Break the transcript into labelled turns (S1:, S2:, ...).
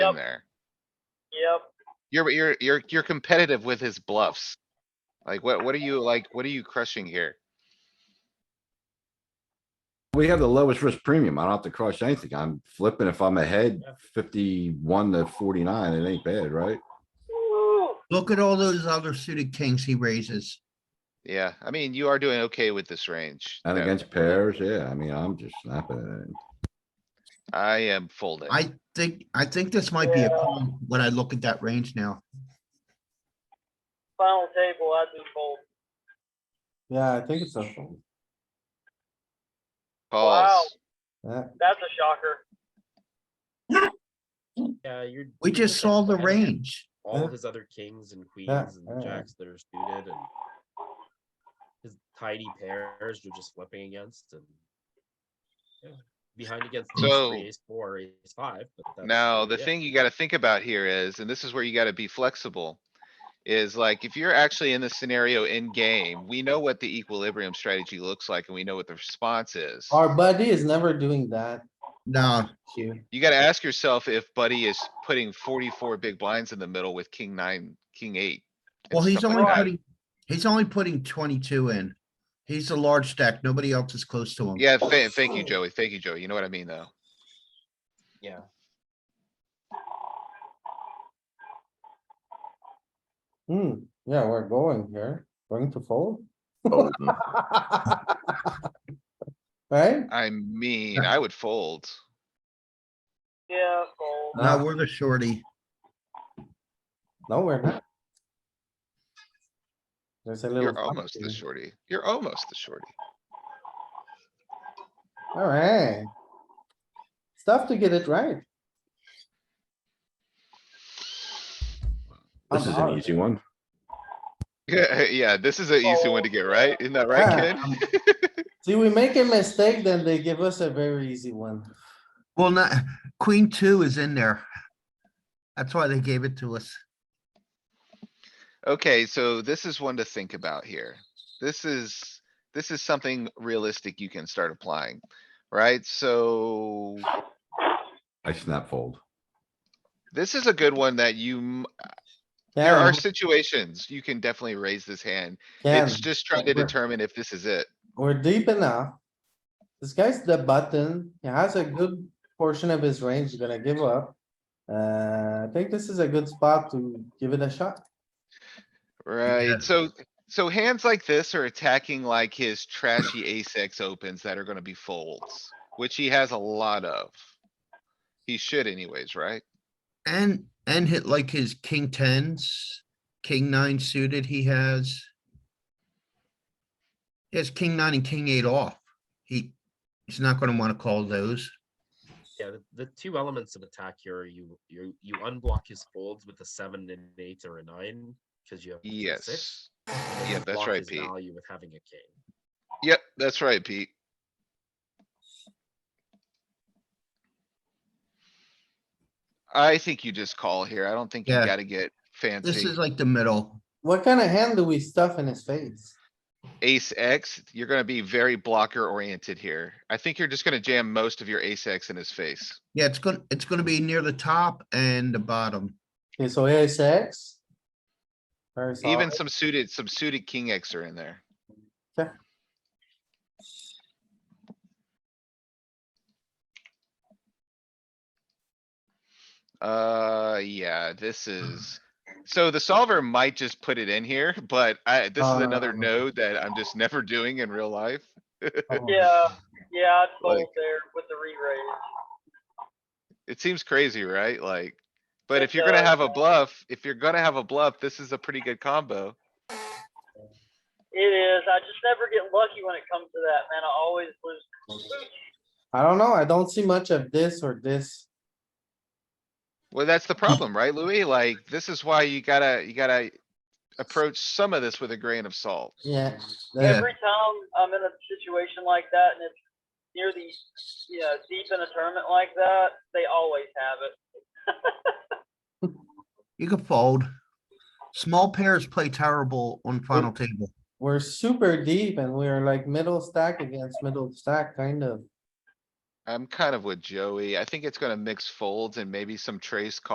S1: Yep.
S2: in there.
S1: Yep.
S2: You're, you're, you're, you're competitive with his bluffs. Like, what, what are you, like, what are you crushing here?
S3: We have the lowest risk premium. I don't have to crush anything. I'm flipping if I'm ahead fifty-one to forty-nine, it ain't bad, right?
S4: Look at all those other suited kings he raises.
S2: Yeah, I mean, you are doing okay with this range.
S3: And
S2: No,
S3: against pairs, yeah, I mean, I'm just snapping at it.
S2: I am folding.
S4: I think, I think this might be a problem when I look at that range now.
S1: Final table, I'd be fold.
S5: Yeah, I think it's a fold.
S1: Wow.
S2: Calls.
S5: Yeah,
S1: That's a shocker.
S6: Yeah, you're.
S4: We
S6: you're
S4: just
S6: looking
S4: saw the
S6: at
S4: range.
S6: All of
S5: Yeah.
S6: his other kings and
S5: Yeah,
S6: queens
S5: yeah, yeah.
S6: and jacks that are suited and. His tidy pairs you're just flipping against and. yeah, Behind against ace
S2: So-
S6: three, ace four, ace five, but. that's
S2: Now, the
S6: really it.
S2: thing you gotta think about here is, and this is where you gotta be flexible. Is like, if you're actually in the scenario in game, we know what the equilibrium strategy looks like and we know what the response is.
S5: our buddy is never doing that,
S4: No,
S5: Q.
S2: You gotta ask yourself if Buddy is putting forty-four big blinds in the middle with king nine, king eight. and
S4: well, he's
S2: stuff like
S4: only
S2: that.
S4: putting, he's only putting twenty-two in. He's a large stack. Nobody else is close to him.
S2: Yeah, tha- thank you, Joey. Thank you, Joey. You know what I mean, though.
S6: Yeah.
S5: Hmm, yeah, we're going here, going to fold. Right?
S2: I mean, I would fold.
S1: Yeah, fold.
S4: No, we're the shorty.
S5: No, we're not. There's a little.
S2: You're
S5: flop
S2: almost the
S5: here.
S2: shorty. You're almost the shorty.
S5: Alright. Stuff to get it right.
S3: This is an easy one.
S2: Yeah, yeah, this is an easy one to get right. Isn't that right,
S5: Yeah.
S2: kid?
S5: See, we make a mistake, then they give us a very easy one.
S4: Well, not, queen two is in there. That's why they gave it to us.
S2: Okay, so this is one to think about here. This is, this is something realistic you can start applying, right? So
S3: I snap fold.
S2: this is a good one that you, m- there
S5: Yeah,
S2: are situations you can definitely raise this hand.
S5: yeah,
S2: It's just trying to
S5: we're-
S2: determine if this is it.
S5: we're deep enough. This guy's the button. He has a good portion of his range he's gonna give up. Uh, I think this is a good spot to give it a shot.
S2: Right, so, so hands like this are attacking like his trashy ace X opens that are gonna be folds, which he has a lot of. He should anyways, right?
S4: And, and hit like his king tens, king nine suited he has. He has king nine and king eight off. He, he's not gonna wanna call those.
S6: Yeah, the, the two elements of attack here, are you, you, you unblock his folds with a seven and an eight or a nine, cause you have. a king six,
S2: Yes.
S6: and
S2: Yeah,
S6: you
S2: that's
S6: block
S2: right,
S6: his
S2: Pete.
S6: Value with having a king.
S2: Yep, that's right, Pete. I think you just call here. I don't think you
S4: Yeah.
S2: gotta get
S4: This
S2: fancy.
S4: is like the middle.
S5: What kind of hand do we stuff in his face?
S2: Ace X, you're gonna be very blocker oriented here. I think you're just gonna jam most of your ace X in his face.
S4: Yeah, it's gonna, it's gonna be near the top and the bottom.
S5: Okay, so ace X. Very
S2: Even
S5: solid.
S2: some suited, some suited king X are in there.
S5: Okay.
S2: Uh, yeah, this
S5: Hmm.
S2: is, so the solver might just put it in here, but I, this is another
S5: Uh.
S2: node that I'm just never doing in real life.
S5: Oh.
S1: Yeah, yeah, I'd fold
S2: Like-
S1: there with the re-raise.
S2: It seems crazy, right? Like, but
S1: It
S2: if you're gonna
S1: does.
S2: have a bluff, if you're gonna have a bluff, this is a pretty good combo.
S1: It is. I just never get lucky when it comes to that, man. I always lose.
S5: I don't know. I don't see much of this or this.
S2: Well, that's the problem, right, Louis? Like, this is why you gotta, you gotta approach some of this with a grain of salt.
S5: Yeah.
S4: Yeah.
S1: Every time I'm in a situation like that and it's near the, you know, deep in a tournament like that, they always have it.
S4: You can fold. Small pairs play terrible on final table.
S5: We're super deep and we're like middle stack against middle stack, kind of.
S2: I'm kind of with Joey. I think it's gonna mix folds and maybe some trace